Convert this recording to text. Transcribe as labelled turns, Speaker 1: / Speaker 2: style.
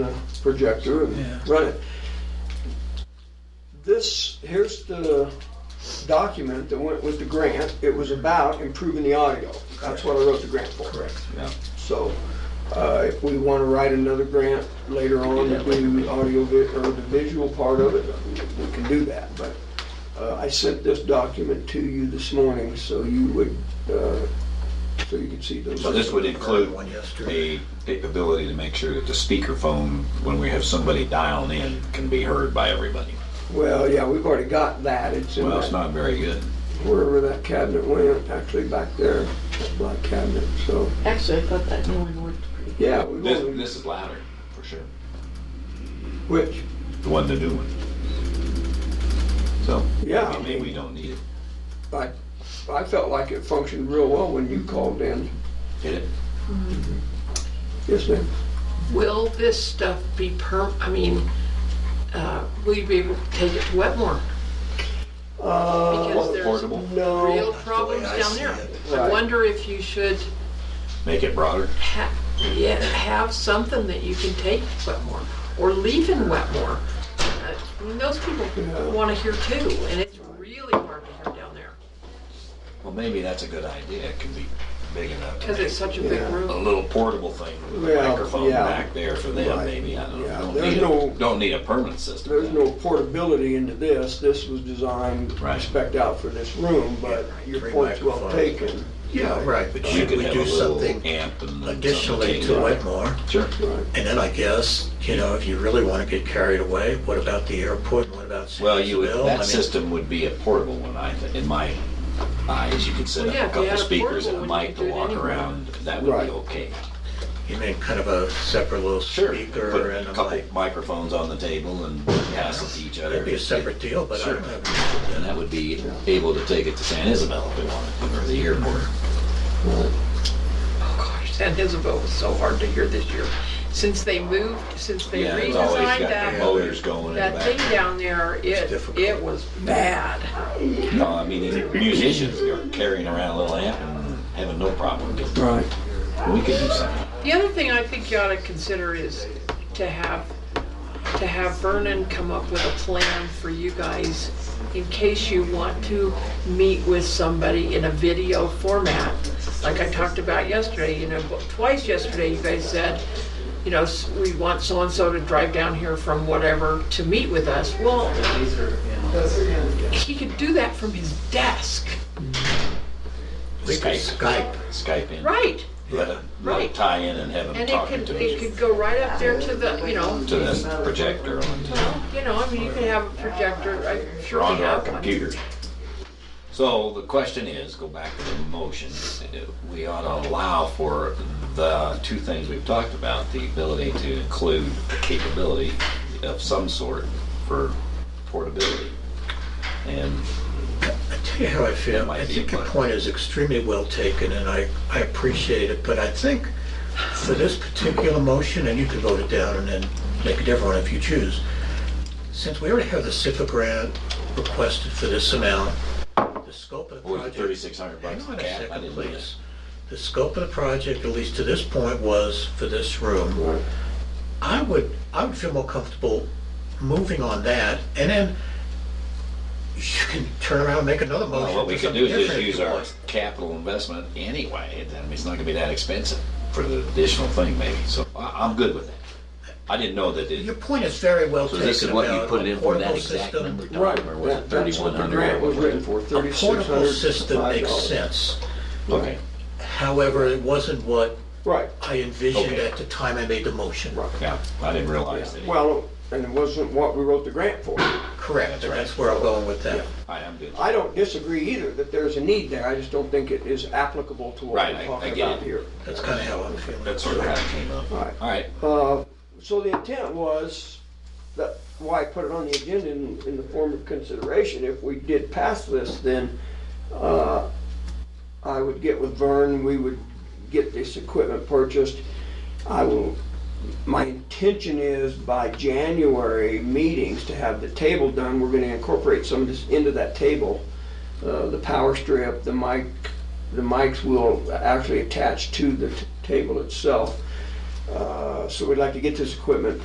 Speaker 1: the projector
Speaker 2: Yeah.
Speaker 1: and run it. This, here's the document that went with the grant. It was about improving the audio. That's what I wrote the grant for.
Speaker 2: Correct.
Speaker 1: So, uh, if we wanna write another grant later on to do audio vi, or the visual part of it, we can do that, but, uh, I sent this document to you this morning, so you would, uh, so you could see those.
Speaker 3: So this would include
Speaker 2: One yesterday.
Speaker 3: the ability to make sure that the speakerphone, when we have somebody dialing in, can be heard by everybody.
Speaker 1: Well, yeah, we've already got that, it's in
Speaker 3: Well, it's
Speaker 1: that,
Speaker 3: not very good.
Speaker 1: wherever that cabinet went, actually back there, that black cabinet, so,
Speaker 4: Actually, I thought that new one worked pretty good.
Speaker 1: yeah. we've
Speaker 3: This,
Speaker 1: only-
Speaker 3: this is louder, for sure.
Speaker 1: Which,
Speaker 3: The one, the new one. So,
Speaker 1: yeah, I
Speaker 3: I mean, we
Speaker 1: mean,
Speaker 3: don't need it.
Speaker 1: I, I felt like it functioned real well when you called in,
Speaker 3: Did it?
Speaker 1: yes, ma'am?
Speaker 4: Will this stuff be perm, I mean, uh, will you be able to take it to Wetmore?
Speaker 1: Uh,
Speaker 4: Because there's
Speaker 3: Portable?
Speaker 1: No.
Speaker 4: real
Speaker 2: Oh, the way
Speaker 4: problems
Speaker 2: I
Speaker 4: down
Speaker 2: see
Speaker 4: there.
Speaker 2: it.
Speaker 4: I
Speaker 1: Right.
Speaker 4: wonder if you should
Speaker 3: Make it broader?
Speaker 4: ha, yeah, have something that you can take to Wetmore or leave in Wetmore. Uh, I mean, those people
Speaker 1: Yeah.
Speaker 4: wanna hear too, and it's really hard to hear down there,
Speaker 3: Well, maybe that's a good idea. It can be big enough to
Speaker 4: cause
Speaker 3: make
Speaker 4: it's such a big
Speaker 1: Yeah.
Speaker 3: a
Speaker 4: room.
Speaker 3: little portable thing with a
Speaker 1: Well,
Speaker 3: microphone
Speaker 1: yeah.
Speaker 3: back there for them,
Speaker 1: Right.
Speaker 3: maybe. I don't
Speaker 1: Yeah,
Speaker 3: know.
Speaker 1: there's
Speaker 3: Don't need
Speaker 1: no-
Speaker 3: a, don't need a permanent system.
Speaker 1: There's no portability into this, this was designed,
Speaker 3: Right.
Speaker 1: spec out for this room, but your
Speaker 2: Three
Speaker 1: point's well
Speaker 2: microphones.
Speaker 1: taken.
Speaker 2: Yeah, right, but
Speaker 3: You
Speaker 2: should
Speaker 3: could
Speaker 2: we
Speaker 3: have a
Speaker 2: do
Speaker 3: little
Speaker 2: something
Speaker 3: amp and then
Speaker 2: additionally
Speaker 3: something
Speaker 2: to
Speaker 3: like-
Speaker 2: Wetmore?
Speaker 3: Sure.
Speaker 1: Right.
Speaker 2: And then I guess, you know, if you really want to get carried away, what about the airport? What about
Speaker 3: Well, you would,
Speaker 2: Sandersville? I
Speaker 3: that
Speaker 2: mean,
Speaker 3: system would be a portable one, I think, in my eyes, you could set
Speaker 4: Well, yeah,
Speaker 3: up
Speaker 4: if
Speaker 3: a
Speaker 4: you
Speaker 3: couple
Speaker 4: had a
Speaker 3: speakers and a
Speaker 4: portable one, you
Speaker 3: mic
Speaker 4: could
Speaker 3: to
Speaker 4: do it
Speaker 3: walk
Speaker 4: anywhere.
Speaker 3: around, that would
Speaker 1: Right.
Speaker 3: be okay.
Speaker 2: You mean kind of a separate little speaker
Speaker 3: Put
Speaker 2: and
Speaker 3: a
Speaker 2: a
Speaker 3: couple
Speaker 2: mic.
Speaker 3: microphones on the table and pass it to each other.
Speaker 2: That'd be a separate deal, but I
Speaker 3: Sure.
Speaker 2: don't have.
Speaker 3: And that would be able to take it to San Isabel if we wanted, or the airport.
Speaker 4: Oh gosh, San Isabel was so hard to hear this year. Since they moved, since they
Speaker 3: Yeah, it's always got
Speaker 4: redesigned
Speaker 3: the uh,
Speaker 4: that,
Speaker 3: motors going in the
Speaker 4: that thing
Speaker 3: back.
Speaker 4: down there, it,
Speaker 2: difficult.
Speaker 4: it was bad.
Speaker 3: No, I mean, these musicians are carrying around a little amp and having no problem. We
Speaker 1: Right.
Speaker 3: could do something.
Speaker 4: The other thing I think you ought to consider is to have, to have Vernon come up with a plan for you guys in case you want to meet with somebody in a video format. Like I talked about yesterday, you know, twice yesterday, you guys said, you know, s- we want so-and-so to drive down here from whatever to meet with us. Well, he could do that from his desk,
Speaker 2: We could Skype.
Speaker 3: Skype in.
Speaker 4: right?
Speaker 3: Let it, let
Speaker 4: Right.
Speaker 3: it tie in and have them
Speaker 4: And it
Speaker 3: talking
Speaker 4: could,
Speaker 3: to
Speaker 4: it
Speaker 3: each,
Speaker 4: could go right up there to the, you know,
Speaker 3: to this projector on.
Speaker 4: Well, you know, I mean, you could have a projector, I'm sure
Speaker 3: They're
Speaker 4: we
Speaker 3: onto our
Speaker 4: have one.
Speaker 3: computer. So the question is, go back to the motion, we ought to allow for the two things we've talked about, the ability to include capability of some sort for portability. And
Speaker 2: I tell you how I
Speaker 3: That
Speaker 2: feel.
Speaker 3: might
Speaker 2: I
Speaker 3: be
Speaker 2: think your
Speaker 3: fun.
Speaker 2: point is extremely well taken, and I, I appreciate it, but I think for this particular motion, and you can vote it down and then make a different one if you choose, since we already have the SIPA grant requested for this amount, the scope of the
Speaker 3: what was it,
Speaker 2: project.
Speaker 3: thirty-six hundred
Speaker 2: Hang
Speaker 3: bucks
Speaker 2: on
Speaker 3: a
Speaker 2: a
Speaker 3: cap? I
Speaker 2: second,
Speaker 3: didn't do
Speaker 2: please. The scope of the project, at least to this point, was for this room.
Speaker 1: Right.
Speaker 2: I would, I would feel more comfortable moving on that, and then you can turn around and make another
Speaker 3: that. Well,
Speaker 2: motion
Speaker 3: What we
Speaker 2: for
Speaker 3: could
Speaker 2: something
Speaker 3: do is
Speaker 2: different
Speaker 3: just
Speaker 2: if
Speaker 3: use
Speaker 2: you
Speaker 3: our
Speaker 2: want.
Speaker 3: capital investment anyway, I mean, it's not gonna be that expensive for the additional thing maybe, so I, I'm good with that. I didn't know that it.
Speaker 2: Your point is very well
Speaker 3: So
Speaker 2: taken
Speaker 3: this is what you
Speaker 2: about
Speaker 3: put
Speaker 2: a
Speaker 3: in for that
Speaker 2: portable
Speaker 3: exact
Speaker 2: system.
Speaker 3: number, Tom,
Speaker 1: Right,
Speaker 3: or was it
Speaker 1: that- that's what the
Speaker 3: 3,100
Speaker 1: grant was
Speaker 3: or
Speaker 1: written for,
Speaker 2: A
Speaker 1: thirty-six
Speaker 2: portable
Speaker 1: hundred
Speaker 2: system
Speaker 1: and five
Speaker 2: makes
Speaker 1: dollars.
Speaker 2: sense.
Speaker 3: Okay,
Speaker 2: However, it wasn't what
Speaker 1: Right,
Speaker 2: I envisioned
Speaker 3: Okay.
Speaker 2: at the time I made the motion.
Speaker 1: right.
Speaker 3: yeah, I didn't realize that.
Speaker 1: Well, and it wasn't what we wrote the grant for.
Speaker 2: Correct, and that's where I'm going with that.
Speaker 3: I am good.
Speaker 1: I don't disagree either that there's a need there, I just don't think it is applicable to what
Speaker 3: Right,
Speaker 1: we're
Speaker 3: I- I
Speaker 1: talking
Speaker 3: get
Speaker 1: about
Speaker 3: it.
Speaker 1: here.
Speaker 2: That's kind of how I'm feeling.
Speaker 3: That's sort of how it came up.
Speaker 1: All right.
Speaker 3: All right,
Speaker 1: Uh, So the intent was, that, why I put it on the agenda in, in the form of consideration, if we did pass this, then uh, I would get with Vern, we would get this equipment purchased. I will, my intention is by January meetings to have the table done, we're gonna incorporate some of this into that table. Uh, The power strip, the mic, the mics will actually attach to the t- table itself. Uh, So we'd like to get this equipment